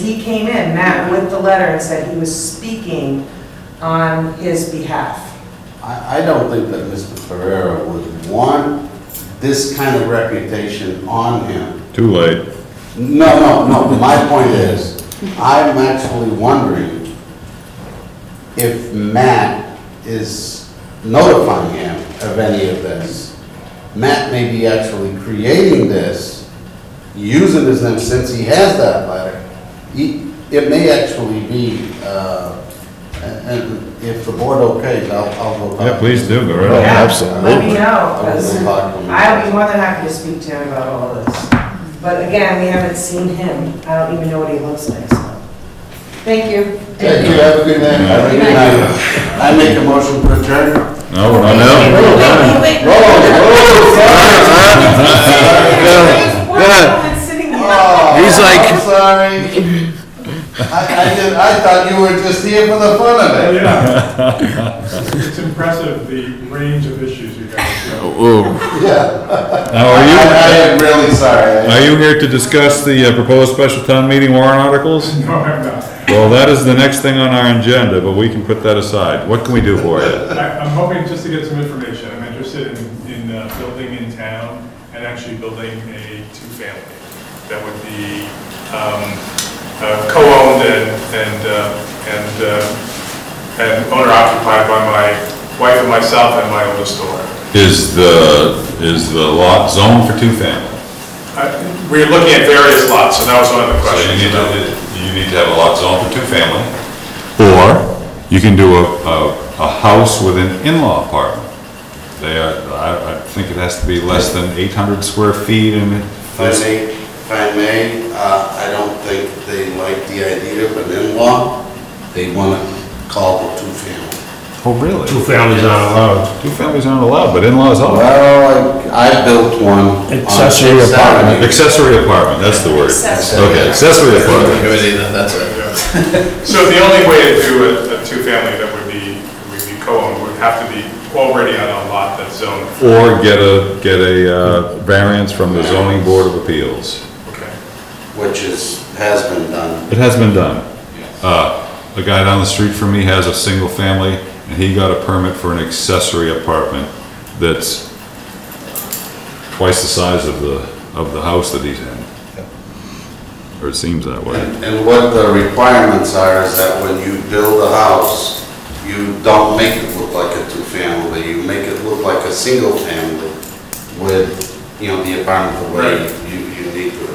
He came in, Matt, with the letter and said he was speaking on his behalf. I, I don't think that Mr. Ferrera would want this kind of reputation on him. Too late. No, no, no, my point is, I'm actually wondering if Matt is notifying him of any of this. Matt may be actually creating this, using his name since he has that letter. He- It may actually be, uh, and- and if the board okays, I'll, I'll go back. Yeah, please do, go right Oh, ahead. absolutely. Let me know, I will 'cause go back on that. I'd be more than happy to speak to him about all of this. But again, we haven't seen him. I don't even know what he looks like, so. Thank you. Thank you, have a good night. Have a good night. I make a motion to adjourn. No, we're not Wait, now. wait, wait, wait. Roll, roll, oh, sorry. There's one Yeah. woman sitting here. Oh, He's like- I'm sorry. I, I did, I thought you were just here for the fun of it. Yeah. It's impressive, the range of issues you guys Oh. go. Ooh, Yeah. I, I Now, are you, am really sorry. are you here to discuss the uh, proposed special town meeting warrant articles? No, I'm not. Well, that is the next thing on our agenda, but we can put that aside. What can we do for you? I- I'm hoping just to get some information. I'm interested in, in uh, building in town and actually building a two-family that would be um, uh, co-owned and, and, uh, and, uh, and owner-occupied by my wife and myself and my oldest daughter. Is the, is the lot zoned for two family? I- Uh, We're looking at various lots, so that was one of the So you questions. need about- to, you need to have a lot zoned for two family. Or you can do a, a, a house with an in-law apartment. They are, I, I think it has to be less than eight hundred square feet and If I it's may, if I may, uh, I don't think they like the idea of an in-law. They want to call the two-family. Oh, really? Two families aren't allowed. Two families aren't allowed, but in-laws are. Well, I, I built one. Accessory apartment. Accessory apartment, that's the word. Accessory. Okay, accessory apartment. that's it. So the only way to do a, a two-family that would be, would be co-owned would have to be already on a lot that's zoned, Or get a, get a uh, variance from the zoning board of appeals. okay? Which is, has been done. It has been done. Uh, A guy down the street from me has a single family, and he got a permit for an accessory apartment that's twice the size of the, of the house that he's in. Or it seems that way. And and what the requirements are is that when you build a house, you don't make it look like a two-family, you make it look like a single-family with, you know, the apartment the way Right. you, you need to.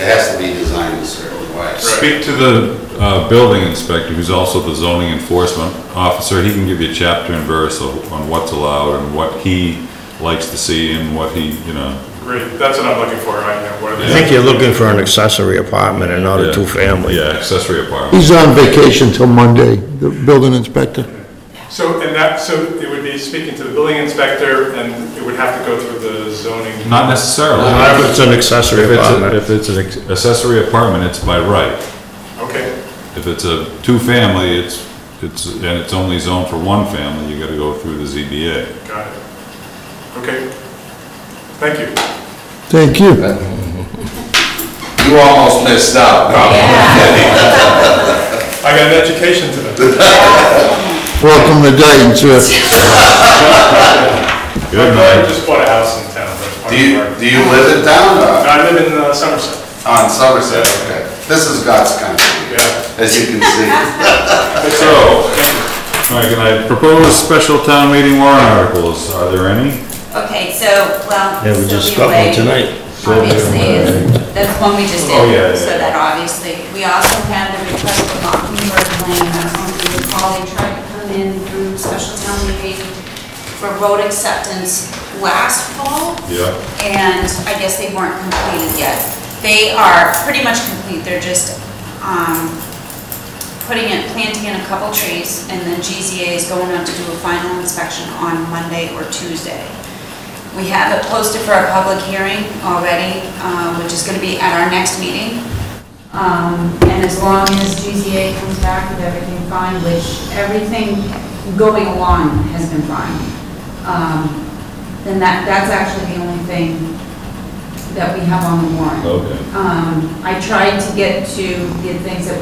It has to be designed a certain way. Speak to the uh, building inspector, who's also the zoning enforcement officer. He can give you chapter and verse of- on what's allowed and what he likes to see and what he, you know. Great, that's what I'm looking for right now, what are I the... think you're looking for an accessory apartment and not Yeah. a two-family. Yeah, accessory apartment. He's on vacation till Monday, the building inspector. So, and that, so it would be speaking to the building inspector, and it would have to go through the zoning... Not necessarily. Not if it's an accessory If it's, a- apartment. if it's an ex- accessory apartment, it's by right. Okay, If it's a two-family, it's, it's, and it's only zoned for one family, you gotta go through the ZBA. got it. Okay, thank you. Thank you. You almost missed out. I got an education today. Welcome to Dayton, sir. Good I night. just bought a house in town, that's Do part of you, the... do you live in town or I live in uh, Somerset, on Somerset? Okay. This is God's country, yeah. as you can see. So, all right, can I propose special town meeting warrant articles? Are there any? Okay, so, well. Yeah, we just Sylvia got one Way, tonight. Obviously, is- that's one we just did. Oh, yeah, yeah, So yeah. that obviously, we also had the request for Mockingbird Lane, I don't know if you recall, they tried to come in through special town meeting for road acceptance last fall Yeah. and I guess they weren't completed yet. They are pretty much complete, they're just um, putting in, planting in a couple trees, and then GZA is going out to do a final inspection on Monday or Tuesday. We have it posted for a public hearing already, uh, which is going to be at our next meeting. Um, And as long as GZA comes back with everything fine, which everything going along has been fine, um, then that, that's actually the only thing that we have on the warrant. Okay. Oh. Um, I tried to get to the things that